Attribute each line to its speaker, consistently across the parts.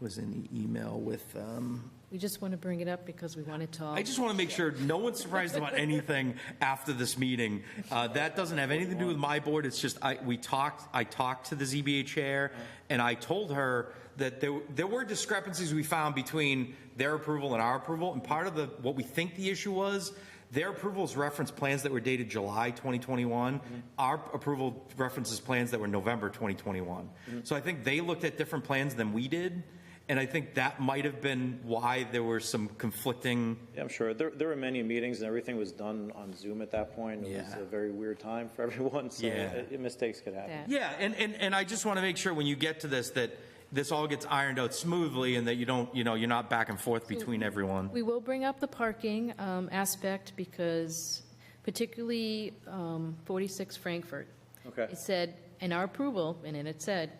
Speaker 1: was in the email with, um,
Speaker 2: We just want to bring it up because we want to talk.
Speaker 3: I just want to make sure no one's surprised about anything after this meeting. Uh, That doesn't have anything to do with my board, it's just, I, we talked, I talked to the ZBA chair, and I told her that there, there were discrepancies we found between their approval and our approval, and part of the, what we think the issue was, their approvals referenced plans that were dated July 2021. Our approval references plans that were November 2021. So I think they looked at different plans than we did, and I think that might have been why there were some conflicting
Speaker 4: Yeah, I'm sure. There, there were many meetings and everything was done on Zoom at that point. It was
Speaker 3: Yeah.
Speaker 4: a very weird time for everyone, so
Speaker 3: Yeah.
Speaker 4: uh, mistakes could happen.
Speaker 2: that.
Speaker 3: Yeah, and, and, and I just want to make sure when you get to this, that this all gets ironed out smoothly and that you don't, you know, you're not back and forth between everyone.
Speaker 2: Mm-hmm. We will bring up the parking um, aspect because particularly um, 46 Frankfurt.
Speaker 4: Okay.
Speaker 2: It said, in our approval, and then it said,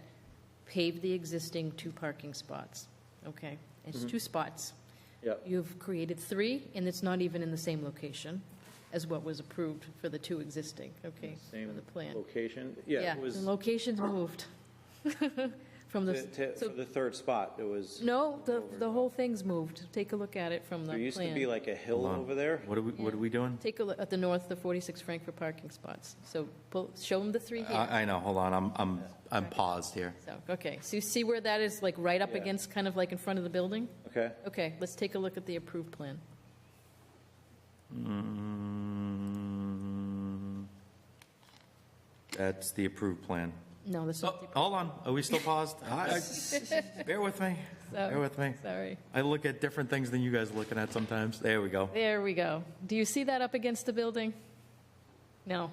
Speaker 2: pave the existing two parking spots. Okay,
Speaker 4: Mm-hmm.
Speaker 2: it's two spots.
Speaker 4: Yep.
Speaker 2: You've created three, and it's not even in the same location as what was approved for the two existing, okay, for
Speaker 4: Same
Speaker 2: the plan.
Speaker 4: location. Yeah, it was
Speaker 2: the location's moved from the,
Speaker 4: to- to-
Speaker 2: so
Speaker 4: for the third spot. It was,
Speaker 2: No, the, the whole thing's moved. Take a look at it from the
Speaker 4: there
Speaker 2: plan.
Speaker 4: used to be like a hill over there.
Speaker 3: What are we, what are we doing?
Speaker 2: Take a look at the north, the 46 Frankfurt parking spots. So pull, show them the three here.
Speaker 3: Uh, I, I know, hold on, I'm, I'm, I'm paused here.
Speaker 2: So, okay, so you see where that is, like, right up
Speaker 4: Yeah.
Speaker 2: against, kind of like in front of the building?
Speaker 4: Okay.
Speaker 2: Okay, let's take a look at the approved plan.
Speaker 3: Mm, That's the approved plan.
Speaker 2: No, this is,
Speaker 3: Oh, Hold on, are we still paused? I- I- Bear with me, bear with me.
Speaker 2: sorry.
Speaker 3: I look at different things than you guys are looking at sometimes. There we go.
Speaker 2: There we go. Do you see that up against the building? No.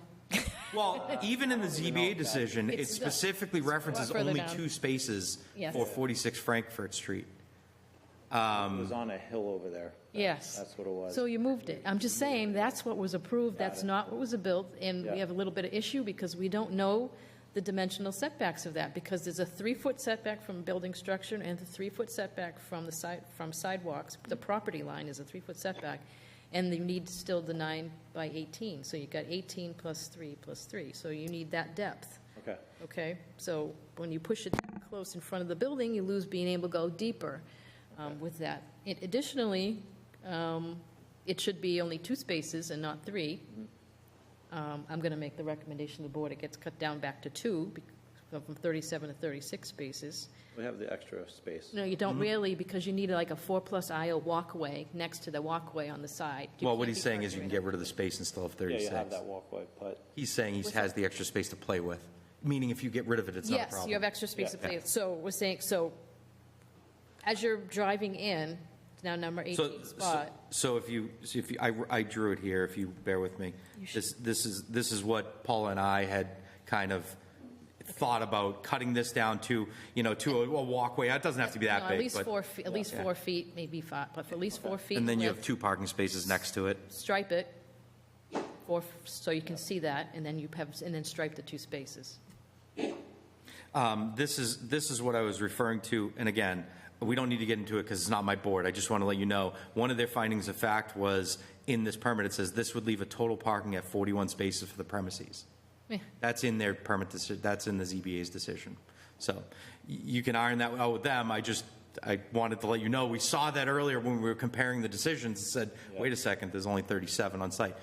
Speaker 3: Well, even in the ZBA decision, it
Speaker 2: It's-
Speaker 3: specifically references
Speaker 2: further
Speaker 3: only
Speaker 2: down.
Speaker 3: two spaces
Speaker 2: Yes.
Speaker 3: for 46 Frankfurt Street.
Speaker 4: It
Speaker 3: Um,
Speaker 4: was on a hill over there.
Speaker 2: Yes.
Speaker 4: That's what it was.
Speaker 2: So you moved it. I'm just saying, that's what was approved, that's not what was built, and
Speaker 4: Yeah.
Speaker 2: we have a little bit of issue because we don't know the dimensional setbacks of that, because there's a three-foot setback from building structure and the three-foot setback from the side, from sidewalks. The property line is a three-foot setback, and you need still the nine by 18, so you've got 18 plus three plus three, so you need that depth.
Speaker 4: Okay.
Speaker 2: Okay, so when you push it close in front of the building, you lose being able to go deeper um, with that. It- Additionally, um, it should be only two spaces and not three. Um, I'm going to make the recommendation to the board, it gets cut down back to two, bec- go from 37 to 36 spaces.
Speaker 4: We have the extra space.
Speaker 2: No, you don't
Speaker 3: Mm-hmm.
Speaker 2: really, because you need like a four-plus aisle walkway next to the walkway on the side. You
Speaker 3: Well, what
Speaker 2: can't
Speaker 3: he's
Speaker 2: be
Speaker 3: saying is you
Speaker 2: parking
Speaker 3: can
Speaker 2: right
Speaker 3: get rid of the space and still have
Speaker 4: Yeah, you have
Speaker 3: 36.
Speaker 4: that walkway, but
Speaker 3: He's saying he has the extra space to play with, meaning if you get rid of it, it's not a
Speaker 2: Yes, you have
Speaker 3: problem.
Speaker 2: extra space to
Speaker 4: Yeah.
Speaker 2: play. So we're saying, so as you're driving in, it's now number
Speaker 3: So, so-
Speaker 2: 18 spot.
Speaker 3: so if you, so if you, I, I drew it here, if you bear with me. This, this is, this is what Paula and I had kind of thought about, cutting this down to, you know, to a a walkway. It doesn't have to be
Speaker 2: No,
Speaker 3: that
Speaker 2: At
Speaker 3: big,
Speaker 2: least
Speaker 3: but,
Speaker 2: four, fe- at least four feet, maybe five, but for at least four feet.
Speaker 3: and then you
Speaker 2: width,
Speaker 3: have two parking spaces next to it.
Speaker 2: Stripe it, four, f- so you can see that, and then you have, and then stripe the two spaces.
Speaker 3: Um, This is, this is what I was referring to, and again, we don't need to get into it because it's not my board. I just want to let you know, one of their findings of fact was, in this permit, it says this would leave a total parking at 41 spaces for the premises.
Speaker 2: Eh.
Speaker 3: That's in their permit, deci- that's in the ZBA's decision. So y- you can iron that out with them. I just, I wanted to let you know, we saw that earlier when we were comparing the decisions and said, wait a second, there's only 37 on site.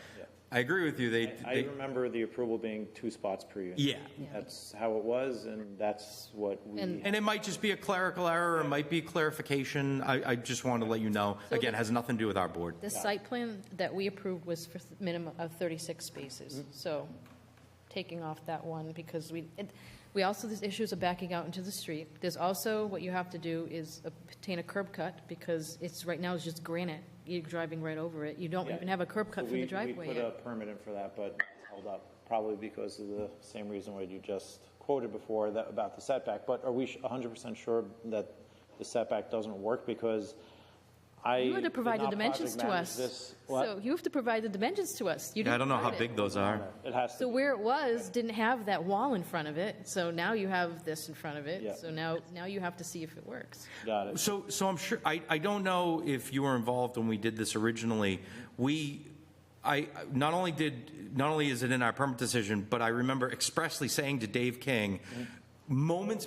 Speaker 3: I agree with you, they,
Speaker 4: I
Speaker 3: they-
Speaker 4: remember the approval being two spots per unit.
Speaker 3: yeah,
Speaker 4: That's how it was, and that's what we.
Speaker 2: And-
Speaker 3: And it might just be a clerical error, it might be clarification, I, I just want to let you know. Again, has nothing to do with our board.
Speaker 2: The site plan that we approved was for th- minimum of 36 spaces,
Speaker 4: Mm-hmm.
Speaker 2: so taking off that one because we, it- we also, there's issues of backing out into the street. There's also, what you have to do is obtain a curb cut because it's, right now it's just granite. You're driving right over it. You don't
Speaker 4: Yeah.
Speaker 2: even have a curb cut
Speaker 4: So
Speaker 2: for the
Speaker 4: we-
Speaker 2: driveway
Speaker 4: We put a
Speaker 2: yet.
Speaker 4: permit in for that, but it's held up, probably because of the same reason what you just quoted before that, about the setback. But are we hundred percent sure that the setback doesn't work? Because I.
Speaker 2: You had to
Speaker 4: did
Speaker 2: provide the
Speaker 4: not
Speaker 2: dimensions
Speaker 4: project
Speaker 2: to
Speaker 4: manage
Speaker 2: us.
Speaker 4: this- What?
Speaker 2: So you have to provide the dimensions to us. You
Speaker 3: Yeah, I
Speaker 2: didn't
Speaker 3: don't know how
Speaker 2: provide it.
Speaker 3: big those are.
Speaker 4: It has
Speaker 2: So
Speaker 4: to,
Speaker 2: where it was didn't have that wall in front of it, so now you have this in front of
Speaker 4: Yeah.
Speaker 2: it. So now, now you have to see if it works.
Speaker 4: be- got it.
Speaker 3: So, so I'm sure, I, I don't know if you were involved when we did this originally. We, I, not only did, not only is it in our permit decision, but I remember expressly saying to Dave King, moments